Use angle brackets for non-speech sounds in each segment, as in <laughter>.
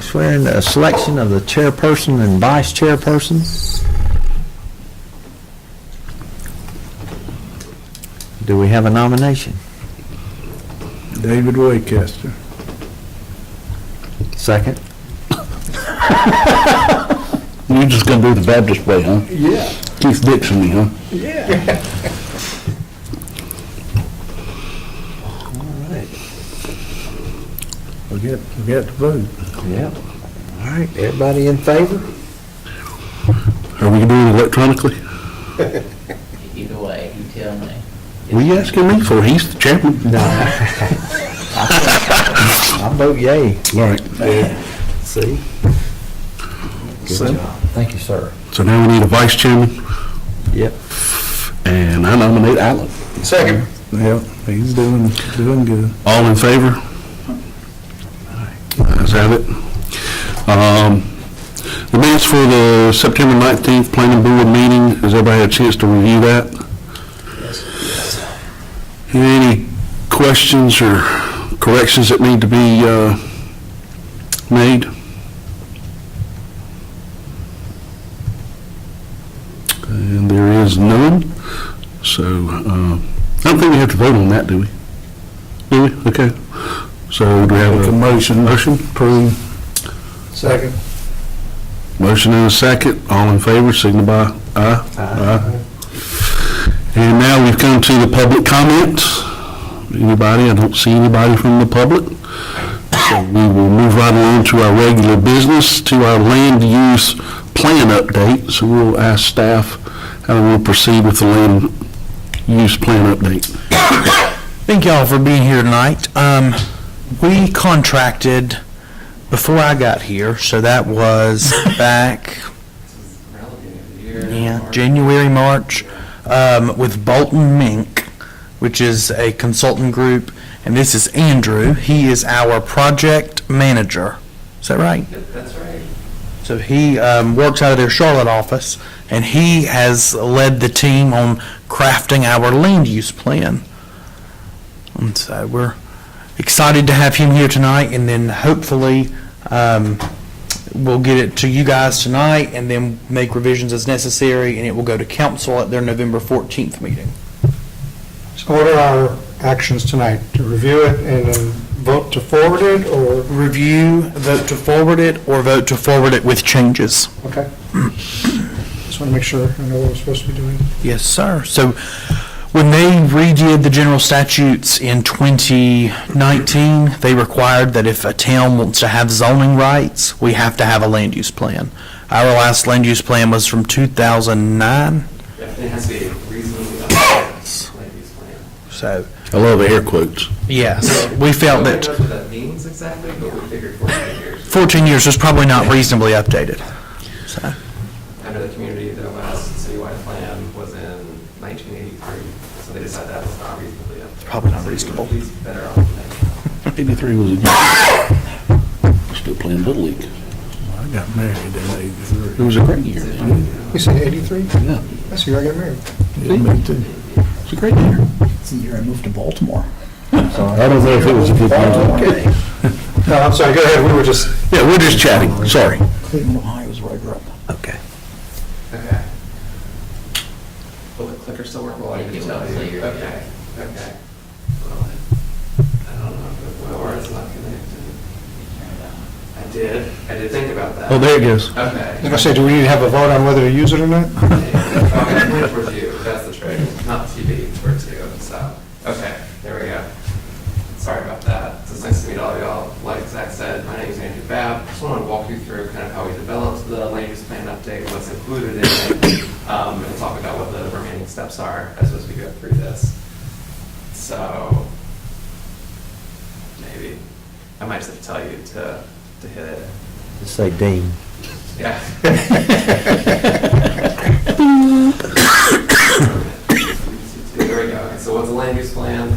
swearing the selection of the chairperson and vice chairperson. Do we have a nomination? David Waycaster. Second? You're just gonna do the Baptist way, huh? Yeah, Keith Dixon, huh? yeah. All right. We got, we got to vote. Yep. All right, everybody in favor? Are we doing it electronically? Either way, you tell me. What are you asking me for? He's the chairman. No. I vote yay. All right, See? So- Good job. Thank you, sir. so now we need a vice chairman, Yep. and I nominate Alan. Second. Yep, he's doing, doing good. All in favor? Ayes have it. Um, The minutes for the September 19th planning board meeting, has everybody had a chance to review that? Any questions or corrections that need to be uh, made? And there is none, so uh, I don't think we have to vote on that, do we? Do we? Okay. So do we have a motion? Motion, approve. Second. Motion and a second. All in favor, signify aye. Aye. And now we've come to the public comments. Anybody? I don't see anybody from the public. So we will move right along to our regular business, to our land use plan update. So we'll ask staff how we will proceed with the land use plan update. Thank y'all for being here tonight. Um, we contracted before I got here, so that was back, yeah, January, March, um, with Bolton Mink, which is a consultant group, and this is Andrew. He is our project manager. Is that right? That's right. So he um, works out of their Charlotte office, and he has led the team on crafting our land use plan. And so we're excited to have him here tonight, and then hopefully um, we'll get it to you guys tonight, and then make revisions as necessary, and it will go to council at their November 14th meeting. So what are our actions tonight? To review it and then vote to forward it, or, Review, vote to forward it, or vote to forward it with changes. okay? Just want to make sure I know what we're supposed to be doing. Yes, sir. So when they redid the general statutes in 2019, they required that if a town wants to have zoning rights, we have to have a land use plan. Our last land use plan was from 2009, It has to be a reasonably updated land use plan. so, I love air quotes. <laughs> yes, we felt Nobody that knows what that means exactly, but we figured 14 years 14 years was probably not reasonably updated. So, under the community, the last citywide plan was in 1983, so they decided that was not reasonably updated. probably not So we were reasonable. At least better off than that. 83 was a good. <laughs> Still playing Little League. I got married in It eighty-three. was a great year. You say 83? Yeah. That's the year I got married. Yeah, me too. It's a great year. It's the year I moved to Baltimore. I don't know if it was a good year. <laughs> No, I'm sorry, go ahead, we were just, Yeah, we're just chatting, sorry. Cleveland, Ohio is where I grew up. Okay. Okay. Will the clicker still work? Well, I can It tell will you. clear, Okay, okay. Well, I I don't know, if it- or it's not connected. I did, I did think about that. Oh, there it goes. Okay. I was going to say, do we need to have a vote on whether to use it or not? Okay, Which was you, that's the trick, not TV, it's for two, so, okay, there we go. Sorry about that, so it's nice to meet all y'all, like Zach said, my name is Andrew Babb, just want to walk you through kind of how we developed the land use plan update, what's included in it, um, and talk about what the remaining steps are as as we go through this. So, maybe, I might just have to tell you to, to hit it, Just say Dean. yeah. There we go. So what's a land use plan?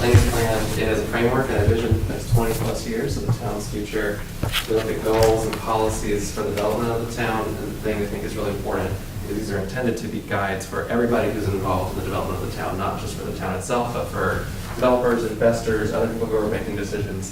Land use plan is a framework and a vision for the next 20 plus years of the town's future. We look at goals and policies for the development of the town, and the thing I think is really important is these are intended to be guides for everybody who's involved in the development of the town, not just for the town itself, but for developers, investors, other people who are making decisions